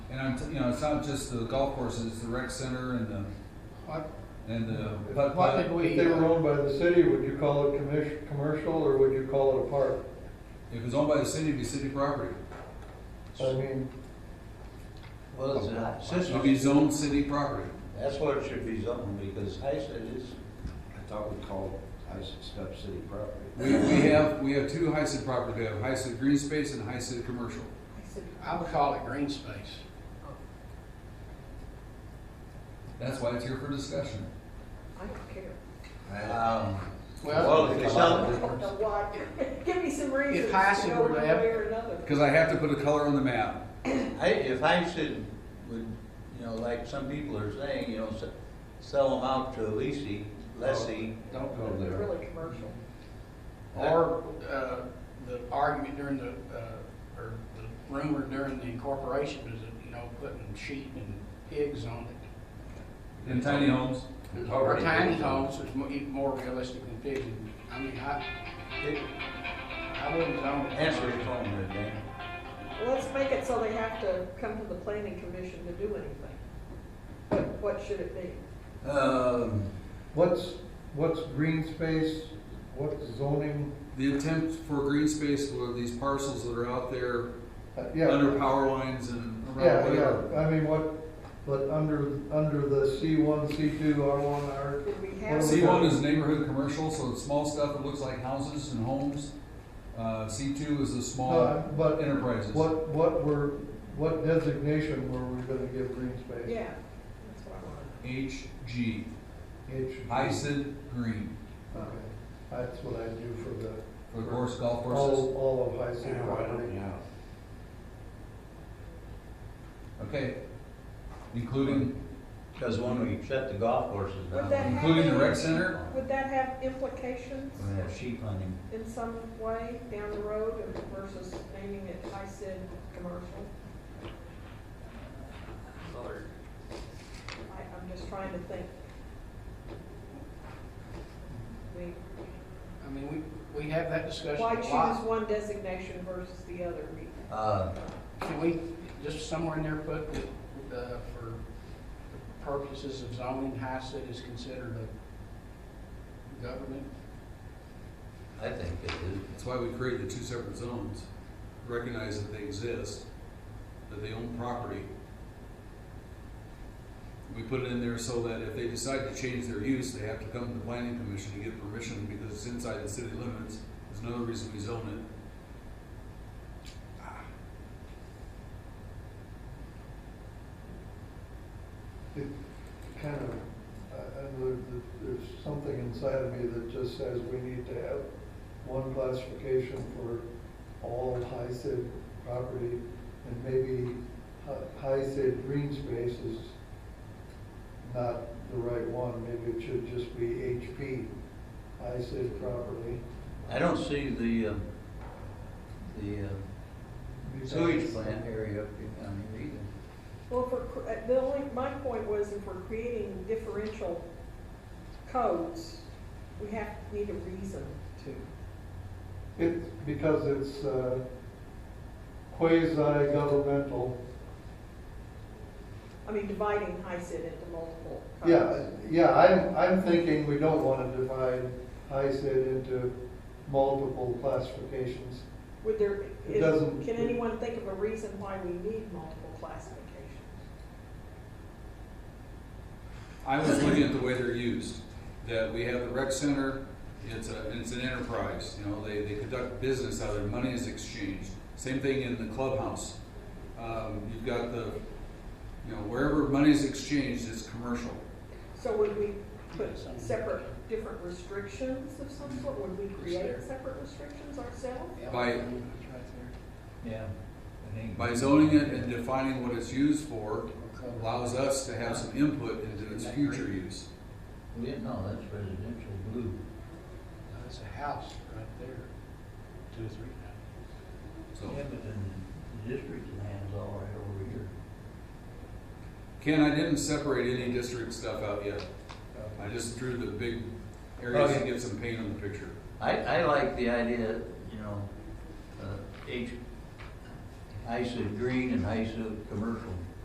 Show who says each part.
Speaker 1: I'm, t- you know, it's not just the golf courses, the rec center and the,
Speaker 2: What,
Speaker 1: and the putt
Speaker 2: what did
Speaker 1: putt.
Speaker 2: we?
Speaker 3: If they were owned by the city, would you call it commercial, commercial, or would you call it a park?
Speaker 1: If it was owned by the city, it'd be city property.
Speaker 3: I mean,
Speaker 4: Well, it's a
Speaker 1: It would be
Speaker 4: system,
Speaker 1: zoned city property.
Speaker 4: that's what it should be zoned, because HISA is, I thought we called HISA stuff city property.
Speaker 1: We, we have, we have two HICID properties. We have HICID green space and HICID commercial.
Speaker 2: I would call it green space.
Speaker 1: That's why it's here for discussion.
Speaker 5: I don't care.
Speaker 4: Um,
Speaker 2: Well,
Speaker 4: Well, if they
Speaker 5: I
Speaker 4: sell
Speaker 5: don't know why. Give me some reasons to
Speaker 2: passing
Speaker 5: go
Speaker 2: would
Speaker 5: one way
Speaker 2: have-
Speaker 5: or another.
Speaker 1: Because I have to put a color on the map.
Speaker 4: it, I- if HISA would, you know, like some people are saying, you know, s- sell them out to a lessee, lessee.
Speaker 2: Don't
Speaker 4: go
Speaker 5: It's really commercial.
Speaker 2: Or, uh, the argument during the, uh, or the rumor during the incorporation is that, you know, putting sheep and pigs on it.
Speaker 1: In tiny homes.
Speaker 2: Or tiny homes is mo- even more realistic than pigs. I mean, I, I wouldn't zone it.
Speaker 4: Answer your phone there, Dan.
Speaker 5: Let's make it so they have to come to the planning commission to do anything. What, what should it be?
Speaker 4: Um,
Speaker 3: what's, what's green space, what's zoning?
Speaker 1: The attempt for green space were these parcels that are out there
Speaker 3: Uh,
Speaker 1: under
Speaker 3: Yeah,
Speaker 1: power lines and around
Speaker 3: yeah,
Speaker 1: whatever.
Speaker 3: yeah, I mean, what, but under, under the C one, C two, R one, R,
Speaker 5: Did we
Speaker 3: Well,
Speaker 5: have?
Speaker 3: see-
Speaker 1: C one is neighborhood commercial, so it's small stuff that looks like houses and homes. Uh, C two is the small
Speaker 3: No, but
Speaker 1: enterprises.
Speaker 3: what, what were, what designation were we gonna give green space?
Speaker 5: Yeah, that's what I wanted.
Speaker 1: HG,
Speaker 3: H.
Speaker 1: HICID Green,
Speaker 3: Okay, That's what I do for the,
Speaker 1: for course
Speaker 3: Oh.
Speaker 1: golf courses.
Speaker 3: all, all of high C property.
Speaker 2: Yeah.
Speaker 1: Okay, including,
Speaker 4: because when we shut the golf courses down,
Speaker 5: Would that
Speaker 4: we
Speaker 1: including the rec center.
Speaker 5: Would that have implications
Speaker 4: have sheep hunting.
Speaker 5: in some way down the road versus naming it high Sid commercial? I, I'm just trying to think. I mean,
Speaker 2: I mean, we, we have that discussion
Speaker 5: Why
Speaker 2: a
Speaker 5: choose
Speaker 2: lot.
Speaker 5: one designation versus the other?
Speaker 4: Uh,
Speaker 2: Can we, just somewhere in there put, uh, for purposes of zoning, HICID is considered a government
Speaker 4: I think it is.
Speaker 1: that's why we created the two separate zones. Recognize that they exist, that they own property. We put it in there so that if they decide to change their use, they have to come to the planning commission to get permission because it's inside the city limits. There's another reason we zone it.
Speaker 3: kind of, I, I know that there's something inside of me that just says we need to have one classification for all high HICID property, and maybe hi- HICID green space is not the right one, maybe it should just be HP, HICID property.
Speaker 4: I don't see the, um, the um, sewage plant area up in- down here either.
Speaker 5: Well, for, cr- uh, the only, my point was if we're creating differential codes, we have, need a reason to.
Speaker 3: It's because it's uh, quasi-governmental.
Speaker 5: I mean, dividing high Sid into multiple codes.
Speaker 3: Yeah, yeah, I'm, I'm thinking we don't want to divide HICID into multiple classifications.
Speaker 5: Would there,
Speaker 3: It
Speaker 5: is-
Speaker 3: doesn't-
Speaker 5: can anyone think of a reason why we need multiple classifications?
Speaker 1: I was looking at the way they're used, that we have the rec center, it's a, and it's an enterprise, you know, they, they conduct business out there, money is exchanged. Same thing in the clubhouse. Um, you've got the, you know, wherever money is exchanged, it's commercial.
Speaker 5: So would we put
Speaker 2: Yeah, some-
Speaker 5: separate, different restrictions of some sort? Would we create
Speaker 2: there.
Speaker 5: separate restrictions ourselves?
Speaker 1: By-
Speaker 2: It's right there.
Speaker 4: Yeah. I think-
Speaker 1: By zoning it and defining what it's used for,
Speaker 2: Okay.
Speaker 1: allows us to have some input into its future use.
Speaker 4: Yeah, no, that's residential blue.
Speaker 2: That's a house right there, two or three now.
Speaker 1: So,
Speaker 4: Yeah, but then the district land's all right over here.
Speaker 1: Ken, I didn't separate any district stuff out yet. I just drew the big areas to
Speaker 4: Okay.
Speaker 1: get some paint on the picture.
Speaker 4: I, I like the idea, you know, uh, H, ISA green and ISA commercial.